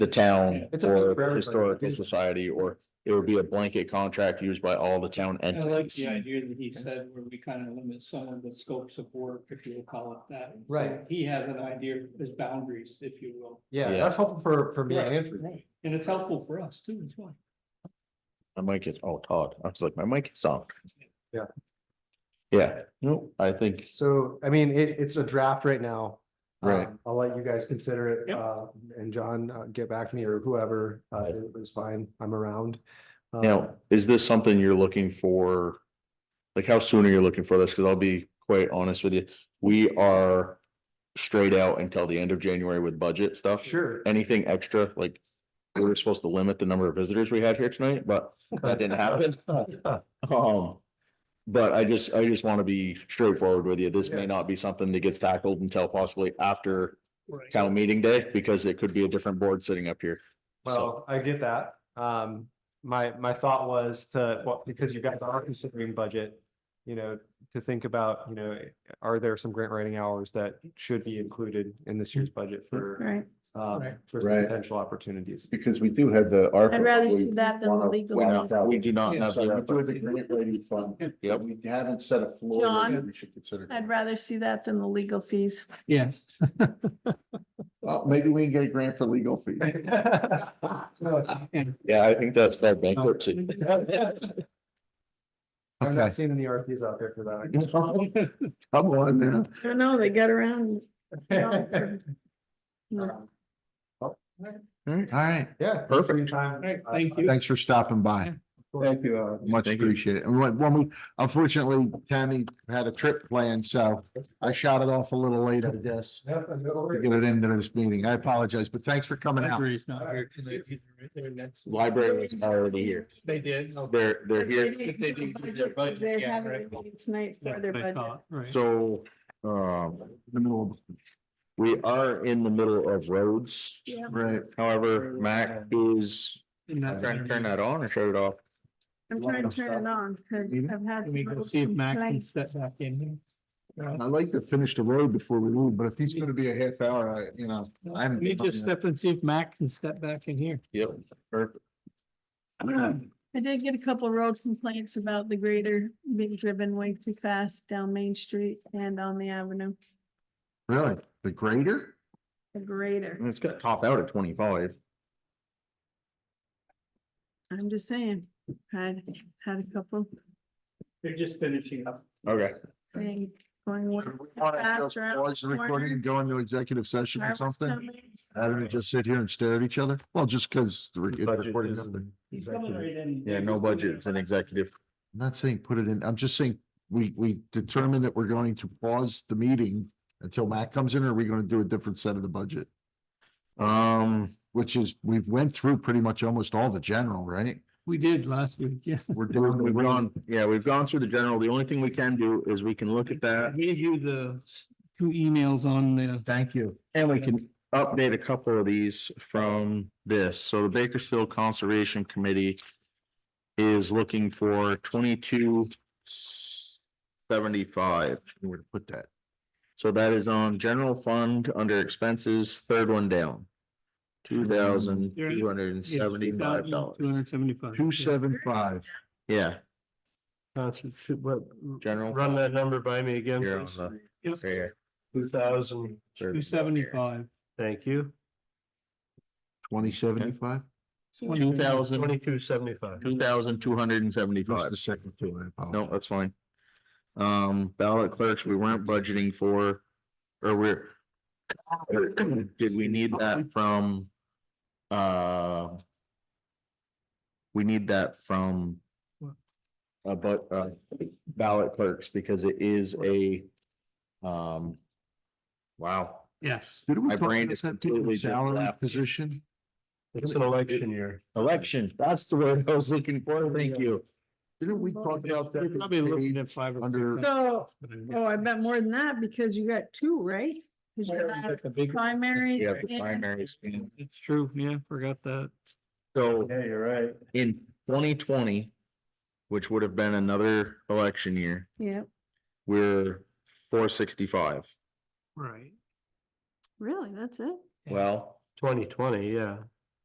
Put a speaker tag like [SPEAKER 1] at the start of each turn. [SPEAKER 1] the town
[SPEAKER 2] It's a big for
[SPEAKER 1] or
[SPEAKER 2] everybody.
[SPEAKER 1] historical society, or it would be a blanket contract used by all the town
[SPEAKER 3] I like the
[SPEAKER 1] entities.
[SPEAKER 3] idea that he said where we kind of limit some of the scopes of work, if you will call it that. So
[SPEAKER 2] Right.
[SPEAKER 3] He has an idea of his boundaries, if you will.
[SPEAKER 2] Yeah,
[SPEAKER 1] Yeah.
[SPEAKER 2] that's helpful for, for me and
[SPEAKER 3] Right,
[SPEAKER 2] Andrew.
[SPEAKER 3] right. And it's helpful for us too, as well.
[SPEAKER 1] My mic is, oh, Todd, I was like, my mic is on.
[SPEAKER 2] Yeah.
[SPEAKER 1] Yeah, no, I think,
[SPEAKER 2] So, I mean, it, it's a draft right now.
[SPEAKER 1] Right.
[SPEAKER 2] Um, I'll let you guys consider it,
[SPEAKER 3] Yep.
[SPEAKER 2] uh, and John, uh, get back to me or whoever, uh,
[SPEAKER 1] Right.
[SPEAKER 2] it was fine, I'm around. Um,
[SPEAKER 1] now, is this something you're looking for? Like, how soon are you looking for this? Cause I'll be quite honest with you, we are straight out until the end of January with budget stuff.
[SPEAKER 2] Sure,
[SPEAKER 1] anything extra, like, we were supposed to limit the number of visitors we had here tonight, but that didn't happen. Um, but I just, I just want to be straightforward with you. This may
[SPEAKER 2] Yeah.
[SPEAKER 1] not be something that gets tackled until possibly after
[SPEAKER 3] Right.
[SPEAKER 1] town meeting day, because it could be a different board sitting up here. So,
[SPEAKER 2] well, I get that. Um, my, my thought was to, well, because you guys are considering budget, you know, to think about, you know, are there some grant writing hours that should be included in this year's budget for,
[SPEAKER 4] Right,
[SPEAKER 2] um,
[SPEAKER 3] Right.
[SPEAKER 2] for
[SPEAKER 5] Right.
[SPEAKER 2] potential opportunities?
[SPEAKER 5] Because we do have the. ARPA
[SPEAKER 4] I'd rather
[SPEAKER 5] we
[SPEAKER 4] see that than the
[SPEAKER 5] wanna
[SPEAKER 4] legal.
[SPEAKER 5] wanna-
[SPEAKER 4] fees.
[SPEAKER 1] we do not
[SPEAKER 3] Yeah,
[SPEAKER 1] have.
[SPEAKER 5] So we do have the
[SPEAKER 1] the-
[SPEAKER 5] grant writing fund.
[SPEAKER 1] Yep.
[SPEAKER 5] We haven't set a floor. that
[SPEAKER 4] John?
[SPEAKER 5] We should consider.
[SPEAKER 4] I'd rather see that than the legal fees.
[SPEAKER 3] Yes.
[SPEAKER 5] Well, maybe we can get a grant for legal fees.
[SPEAKER 3] And
[SPEAKER 1] Yeah, I think that's called bankruptcy.
[SPEAKER 2] I'm not seeing any RFPs out there for that.
[SPEAKER 5] Come on now.
[SPEAKER 4] I don't know, they got around. No.
[SPEAKER 5] All right.
[SPEAKER 2] Yeah. thanks for
[SPEAKER 1] Perfect.
[SPEAKER 2] your time.
[SPEAKER 3] Right,
[SPEAKER 2] Uh,
[SPEAKER 3] thank you. uh,
[SPEAKER 5] Thanks for stopping by.
[SPEAKER 2] Thank
[SPEAKER 5] you. Much
[SPEAKER 1] Thank you.
[SPEAKER 5] appreciated. And when, when we, unfortunately, Tammy had a trip planned, so I shot it off a little late, I guess.
[SPEAKER 2] Yeah, no
[SPEAKER 5] To
[SPEAKER 2] worries.
[SPEAKER 5] get it into this meeting. I apologize, but thanks for coming out.
[SPEAKER 3] Library's not here tonight either, right? They're next.
[SPEAKER 1] Library is already here.
[SPEAKER 3] They did. okay.
[SPEAKER 1] They're, they're here.
[SPEAKER 3] They do their budget,
[SPEAKER 4] They're
[SPEAKER 3] yeah,
[SPEAKER 4] having
[SPEAKER 3] right.
[SPEAKER 4] a meeting tonight for
[SPEAKER 3] That's
[SPEAKER 4] their
[SPEAKER 3] what I
[SPEAKER 4] budget.
[SPEAKER 3] thought, right.
[SPEAKER 1] So, um, we are in the middle of roads.
[SPEAKER 4] Yeah.
[SPEAKER 1] Right. However, Mac is, uh,
[SPEAKER 3] And that's-
[SPEAKER 1] trying to turn that on or shut it off.
[SPEAKER 4] I'm trying to turn it on, because
[SPEAKER 5] Mhm.
[SPEAKER 4] I've had.
[SPEAKER 3] Can we go
[SPEAKER 4] some-
[SPEAKER 3] see if Mac
[SPEAKER 4] Can I-
[SPEAKER 3] can step back in? here?
[SPEAKER 5] I'd like to finish the road before we leave, but if he's gonna be a half hour, I, you know, I'm.
[SPEAKER 3] Let me just step and see if Mac can step back in here.
[SPEAKER 1] Yep.
[SPEAKER 4] I did get a couple of road complaints about the grader being driven way too fast down Main Street and on the avenue.
[SPEAKER 5] Really? The grader?
[SPEAKER 4] The
[SPEAKER 3] Mm.
[SPEAKER 4] grader,
[SPEAKER 1] It's got top out at twenty-five.
[SPEAKER 4] I'm just saying, had, had a couple
[SPEAKER 3] They're just finishing up.
[SPEAKER 1] Okay.
[SPEAKER 4] things going.
[SPEAKER 5] We
[SPEAKER 4] way
[SPEAKER 5] want to
[SPEAKER 4] fast
[SPEAKER 5] just
[SPEAKER 4] around
[SPEAKER 5] pause the
[SPEAKER 4] the corner.
[SPEAKER 5] recording and go into executive session or
[SPEAKER 4] Car was
[SPEAKER 5] something?
[SPEAKER 4] coming.
[SPEAKER 5] Rather than just sit here and stare at each other? Well, just because.
[SPEAKER 1] Budget is-
[SPEAKER 5] I'm
[SPEAKER 3] He's coming right in.
[SPEAKER 1] Yeah, no budget. It's an executive.
[SPEAKER 5] not saying put it in, I'm just saying, we, we determined that we're going to pause the meeting until Matt comes in, or are we gonna do a different set of the budget?
[SPEAKER 1] Um,
[SPEAKER 5] Which is, we've went through pretty much almost all the general, right?
[SPEAKER 3] We did last week, yeah.
[SPEAKER 5] We're doing,
[SPEAKER 1] we've
[SPEAKER 5] we're on,
[SPEAKER 1] gone, yeah, we've gone through the general. The only thing we can do is we can look at
[SPEAKER 3] I
[SPEAKER 1] that.
[SPEAKER 3] gave you the s- two emails on the,
[SPEAKER 5] thank you.
[SPEAKER 1] And we can update a couple of these from this. So the Bakersfield Conservation Committee is looking for twenty-two seventy-five.
[SPEAKER 5] Where to put that?
[SPEAKER 1] So that is on general fund under expenses, third one down. Two thousand two hundred and seventy-five dollars.
[SPEAKER 3] Two hundred seventy-five.
[SPEAKER 5] Two seven five.
[SPEAKER 1] Yeah,
[SPEAKER 2] Run
[SPEAKER 1] general.
[SPEAKER 2] that number by me again.
[SPEAKER 1] Here on the-
[SPEAKER 3] Yes,
[SPEAKER 1] right here.
[SPEAKER 2] Two thousand,
[SPEAKER 3] two seventy-five.
[SPEAKER 2] thank you.
[SPEAKER 5] Twenty seventy-five?
[SPEAKER 1] Two thousand,
[SPEAKER 2] Twenty-two seventy-five.
[SPEAKER 1] two thousand two hundred and seventy-five.
[SPEAKER 5] The second two, I
[SPEAKER 1] No,
[SPEAKER 5] apologize.
[SPEAKER 1] that's fine. Um, ballot clerks, we weren't budgeting for, or we're. Did we need that from? Uh. We need that from. Uh, but, uh, ballot clerks, because it is a. Um. Wow,
[SPEAKER 3] Yes.
[SPEAKER 5] Did we
[SPEAKER 1] my
[SPEAKER 5] talk
[SPEAKER 1] brain
[SPEAKER 5] about
[SPEAKER 1] is
[SPEAKER 5] that
[SPEAKER 1] completely
[SPEAKER 5] people
[SPEAKER 1] just
[SPEAKER 5] salary
[SPEAKER 1] left.
[SPEAKER 5] position?
[SPEAKER 2] It's an election year.
[SPEAKER 1] elections, that's the word I was looking for, thank you.
[SPEAKER 5] Didn't we talk about
[SPEAKER 3] You're Probably looking
[SPEAKER 5] that?
[SPEAKER 3] at five or.
[SPEAKER 5] under-
[SPEAKER 3] six
[SPEAKER 4] So,
[SPEAKER 3] hundred.
[SPEAKER 4] oh, I bet more than that because you got two, right? 'Cause you got
[SPEAKER 3] That's a big-
[SPEAKER 4] Primary.
[SPEAKER 1] Yeah, the
[SPEAKER 4] and-
[SPEAKER 1] primaries. and-
[SPEAKER 3] It's true, yeah, forgot that.
[SPEAKER 1] So
[SPEAKER 2] you're right.
[SPEAKER 1] in twenty twenty, which would have been another election year.
[SPEAKER 4] Yeah,
[SPEAKER 1] we're four sixty-five.
[SPEAKER 3] Right.
[SPEAKER 4] really, that's it?
[SPEAKER 3] Yeah.
[SPEAKER 1] Well,
[SPEAKER 2] Twenty twenty, yeah.